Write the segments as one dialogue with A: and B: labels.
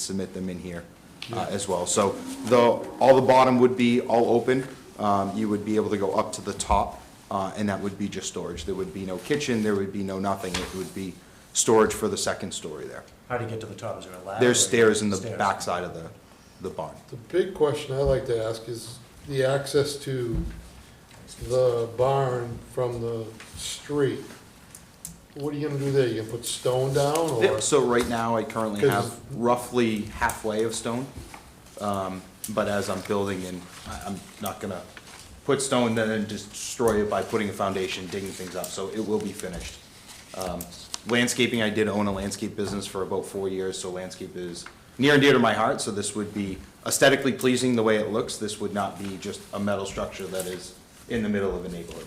A: submit them in here uh, as well. So the, all the bottom would be all open. Um, You would be able to go up to the top, uh, and that would be just storage. There would be no kitchen, there would be no nothing. It would be storage for the second story there.
B: How do you get to the top? Is there a ladder?
A: There's
B: or-
A: stairs in the
B: Stairs.
A: backside of the, the barn.
C: The big question I like to ask is the access to the barn from the street. What are you gonna do there? You gonna put stone down
A: Yeah,
C: or?
A: So right now, I currently have
C: 'Cause-
A: roughly halfway of stone. Um, But as I'm building in, I- I'm not gonna put stone then and destroy it by putting a foundation, digging things up, so it will be finished. Um, Landscaping, I did own a landscape business for about four years, so landscape is near and dear to my heart, so this would be aesthetically pleasing the way it looks. This would not be just a metal structure that is in the middle of a neighborhood.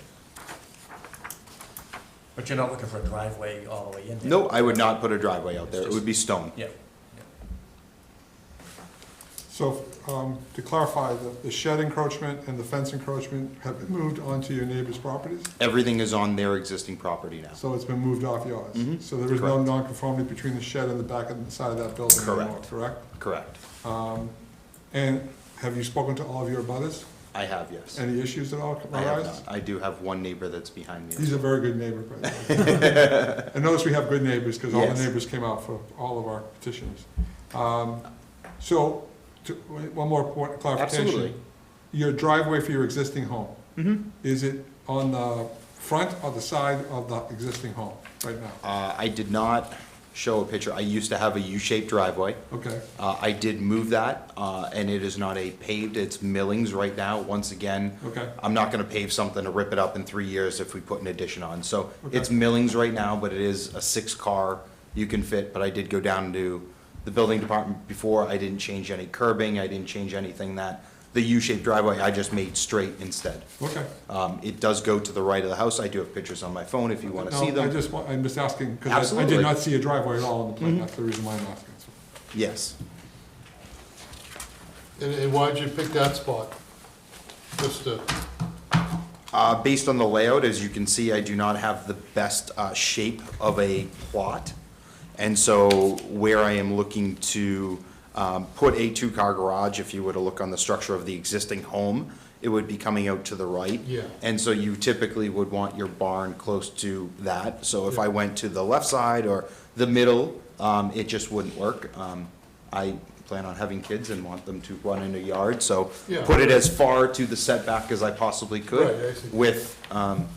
B: But you're not looking for a driveway all the way in there?
A: No, I would not put a driveway out there, it would be stone.
B: Yeah.
D: So, um, to clarify, the- the shed encroachment and the fence encroachment have been moved onto your neighbor's properties?
A: Everything is on their existing property now.
D: So it's been moved off yours?
A: Mhm.
D: So there is no
A: Correct.
D: nonconformity between the shed and the back and the side of that building anymore,
A: Correct.
D: correct?
A: Correct.
D: And have you spoken to all of your abutters?
A: I have, yes.
D: Any issues at all
A: I have
D: arise?
A: not. I do have one neighbor that's behind me.
D: He's a very good neighbor, by the way. And notice we have good neighbors, because all
A: Yes.
D: the neighbors came out for all of our petitions. Um, So, to- wait, one more point, clarification.
A: Absolutely. Mm-hmm.
D: Your driveway for your existing home? Is it on the front or the side of the existing home right now?
A: Uh, I did not show a picture. I used to have a U-shaped driveway.
D: Okay,
A: Uh, I did move that, uh, and it is not a paved, it's millings right now. Once again,
D: okay,
A: I'm not gonna pave something to rip it up in three years if we put an addition on. So it's
D: Okay.
A: millings right now, but it is a six-car you can fit, but I did go down to the building department before. I didn't change any curbing, I didn't change anything that, the U-shaped driveway, I just made straight instead.
D: okay.
A: Um, It does go to the right of the house. I do have pictures on my phone if you want to
D: No,
A: see
D: I
A: them.
D: just, wa- I'm just asking, because I
A: Absolutely. Mm-hmm.
D: did not see a driveway at all in the plan, that's the reason why I'm asking.
A: Yes.
C: And, and why'd you pick that spot? Just to,
A: Uh, Based on the layout, as you can see, I do not have the best uh, shape of a plot. And so where I am looking to um, put a two-car garage, if you were to look on the structure of the existing home, it would be coming out to the right.
C: Yeah.
A: And so you typically would want your barn close to that. So if I went to the left side or the middle, um, it just wouldn't work. Um, I plan on having kids and want them to run in a yard, so
C: Yeah.
A: put it as far to the setback as I possibly
C: Right, I
A: could
C: see.
A: with um,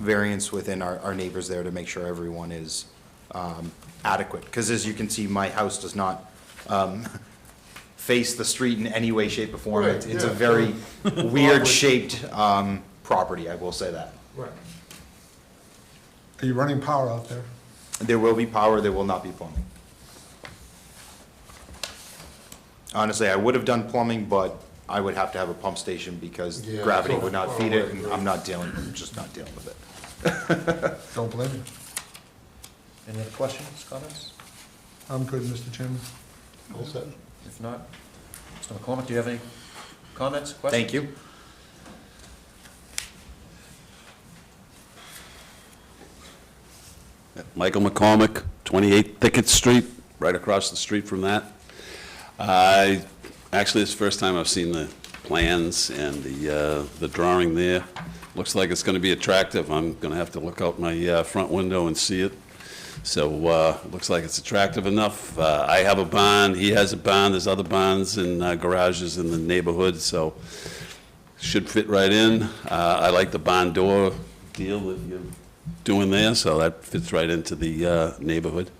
A: variance within our, our neighbors there to make sure everyone is um, adequate. Because as you can see, my house does not um, face the street in any way, shape, or form.
C: Right,
A: It's it's a
C: yeah.
A: very weird-shaped um, property, I will say that.
C: right,
D: Are you running power out there?
A: There will be power, there will not be plumbing. Honestly, I would have done plumbing, but I would have to have a pump station because
C: Yeah,
A: gravity
C: so
A: would not
C: far
A: feed
C: away,
A: it, and
C: right.
A: I'm not dealing, I'm just not dealing with it.
D: Don't blame you.
B: Any other questions, comments?
D: I'm good, Mr. Chairman.
C: all set.
B: If not, Mr. McCormick, do you have any comments, questions?
A: Thank you.
E: Michael McCormick, 28 Thicket Street, right across the street from that. I, actually, it's the first time I've seen the plans and the, uh, the drawing there. Looks like it's going to be attractive. I'm going to have to look out my uh, front window and see it. So, uh, looks like it's attractive enough. Uh, I have a barn, he has a barn, there's other barns and uh, garages in the neighborhood, so should fit right in. Uh, I like the barn door deal that you're doing there, so that fits right into the uh, neighborhood.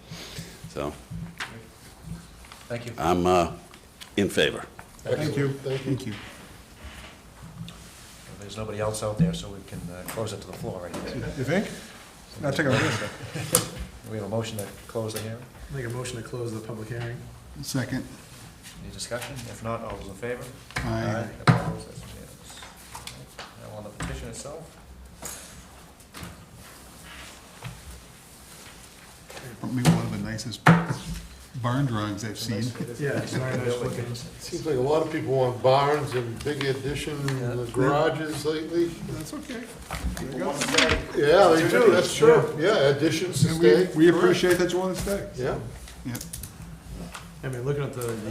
E: So
B: Thank you.
E: I'm uh, in favor.
C: Thank you. Thank you.
B: If There's nobody else out there, so we can uh, close it to the floor right here.
D: You think? Now take a look.
B: We have a motion to close the hearing.
F: Make a motion to close the public hearing.
G: Second.
B: Any discussion? If not, all those in favor?
G: Aye.
B: Opposed? That's unanimous. Now on the petition itself,
G: Maybe one of the nicest barn drawings I've seen.
F: Yeah, it's very nice looking.
C: Seems like a lot of people want barns and big additions and garages lately.
D: That's okay.
C: Yeah, they do, that's true. Yeah, additions to
D: And we,
C: stay.
D: we appreciate that you want to stay.
C: Yeah.
G: Yep.
F: I mean, looking at the, the